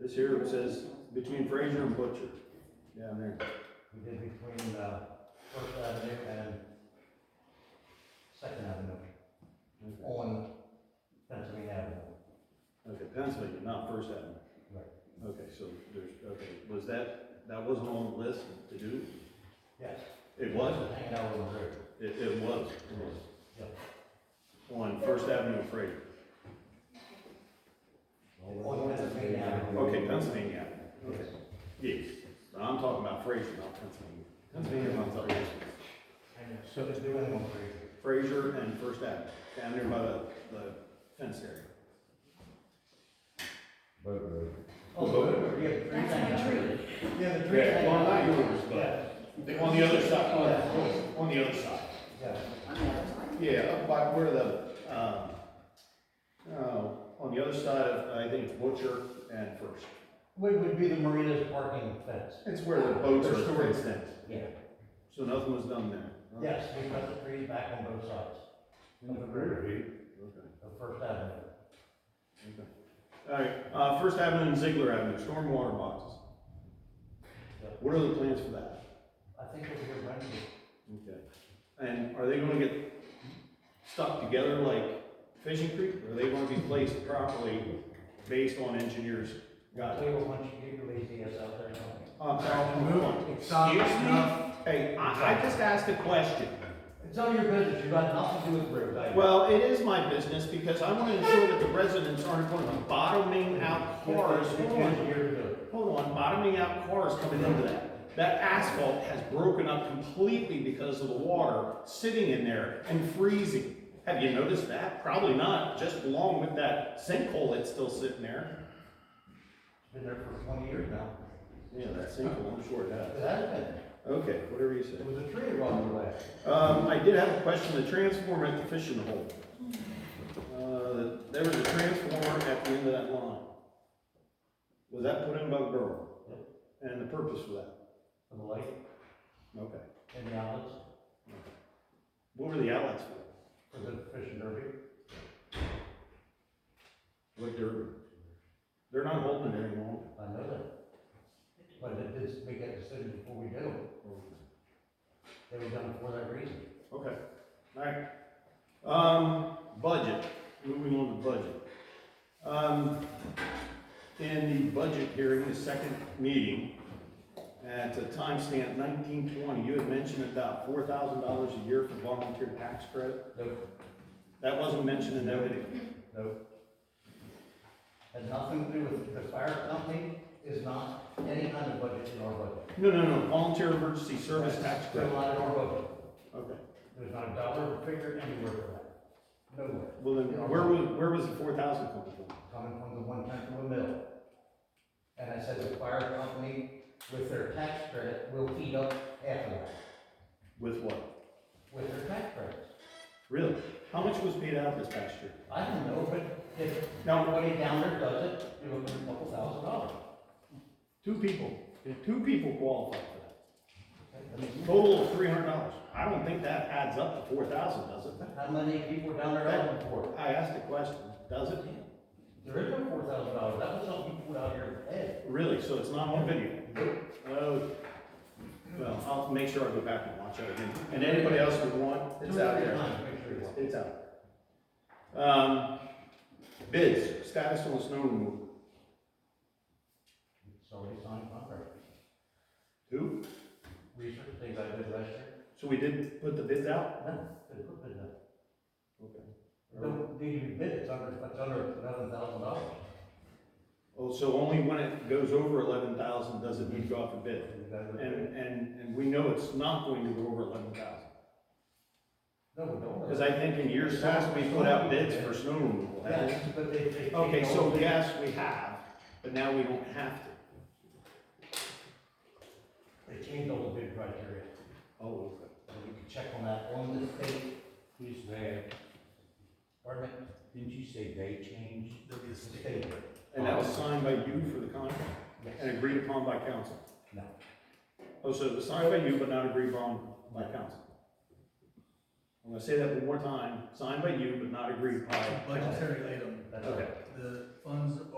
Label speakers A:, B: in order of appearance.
A: This here it says between Fraser and Butcher, down there.
B: We did between, uh, First Avenue and Second Avenue,
A: Okay.
B: on Pennsylvania Avenue.
A: Okay, Pennsylvania, not First Avenue.
B: Right.
A: Okay, so there's, okay, was that, that wasn't on the list to do?
B: Yes.
A: It was?
B: Hanging out on the river.
A: It, it was.
B: Yep.
A: On First Avenue and Fraser.
B: On Pennsylvania Avenue.
A: Okay, Pennsylvania Avenue.
B: Yes.
A: Yes, but I'm talking about Fraser, not Pennsylvania. Pennsylvania runs up here.
B: So they're doing on Fraser.
A: Fraser and First Avenue, down there by the, the fence area.
C: Boat road.
B: Oh, so yeah, the tree
D: That's my
B: thing.
D: tree.
B: Yeah, the tree.
A: Yeah,
B: thing.
A: well, not yours,
B: Yeah,
A: but on the other side, on, on the other side.
B: yeah.
A: Yeah, up by where the, um, oh, on the other side of, I think it's Butcher and First.
B: What would be the marina's parking fence?
A: It's where the boats
B: Their
A: are
B: storage.
A: stored then.
B: Yeah.
A: So nothing was done there? huh?
B: Yes, we cut the trees back on both sides
C: In the prairie.
A: Okay,
B: of First Avenue.
A: okay. All right, uh, First Avenue and Ziegler Avenue, stormwater boxes.
B: Yep.
A: What are the plans for that?
B: I think we're here Wednesday.
A: Okay. And are they gonna get stuck together like Fishing Creek? Or are they gonna be placed properly based on engineers'
B: I'll
A: guidelines?
B: tell you what, once you get your lazy ass out there and help me.
A: I'm sorry,
E: Stop, stop.
A: Hey, I, I just asked a question.
B: It's none of your business, you've got nothing to do with roads, I know.
A: Well, it is my business because I wanna ensure that the residents aren't gonna be bottoming out cars.
B: It's
A: Hold on,
B: years ago.
A: hold on, bottoming out cars coming into that. That asphalt has broken up completely because of the water sitting in there and freezing. Have you noticed that? Probably not, just along with that sinkhole that's still sitting there.
B: It's been there for twenty years now.
A: Yeah, that sinkhole, I'm sure it has.
B: It has been,
A: Okay, whatever you say.
B: it was a tree along the way.
A: Um, I did have a question, the transformer at the fishing hole. Uh, there was a transformer at the end of that line. Was that put in by the borough? And the purpose for that?
B: For the light
A: Okay.
B: and the outlets
A: What were the outlets for?
B: for the fish and derby.
A: What they're, they're not holding it anymore.
B: I know that. But it did make that decision before we did them. They were done for that reason.
A: Okay, alright. Um, budget, moving on to budget. Um, in the budget hearing, the second meeting, at a timestamp nineteen twenty, you had mentioned about four thousand dollars a year for volunteer tax credit.
B: Nope,
A: That wasn't mentioned in that video.
B: nope. Had nothing to do with, the fire company is not any kind of budget in our budget.
A: No, no, no, volunteer emergency service tax
B: They're
A: credit.
B: not in our budget.
A: Okay,
B: There's not a dollar figure anywhere for that. Nowhere.
A: well then, where was, where was the four thousand coming from?
B: coming from the one tenth of a mill. And I said the fire company with their tax credit will heat up after that,
A: With what?
B: with their tax credits.
A: Really? How much was paid out this past year?
B: I don't know, but if
A: Now,
B: nobody down there does it, you're looking at a couple thousand dollars.
A: Two people, two people qualified for that. Total of three hundred dollars. I don't think that adds up to four thousand, does it?
B: How many people down there have them for?
A: I asked a question, does it?
B: There is no four thousand dollars, that was something you put out here in the head.
A: Really? So it's not on video? Oh, well, I'll make sure I go back and watch it again. And anybody else would want, it's out there.
B: Make sure you want.
A: It's out. there. Um, bids, status on the snow removal.
B: It's already signed contract.
A: Who?
B: Research things I did last year.
A: So we did put the bids out?
B: No, they put it up.
A: Okay.
B: Don't need to be bid, it's under, it's under eleven thousand dollars.
A: Oh, so only when it goes over eleven thousand does it need to go out for bid? And, and, and we know it's not going to go over eleven thousand.
B: No, we don't.
A: Because I think in years past, we put out bids for snow removal.
B: Yes, but they, they.
A: Okay,
B: they
A: so
B: don't-
A: yes, we have, but now we don't have to.
B: They changed all the bid criteria,
A: Oh,
B: so we can check on that on the state,
C: Who's that?
B: pardon
C: Didn't you say they changed?
B: me, state.
A: And that was signed by you for the contract and
B: Yes,
A: agreed upon by council.
B: no,
A: Oh, so it was signed by you but not agreed upon by council. I'm gonna say that one more time, signed by you but not agreed by council.
E: Budgetary item,
B: that's
A: Okay.
B: okay.
E: the funds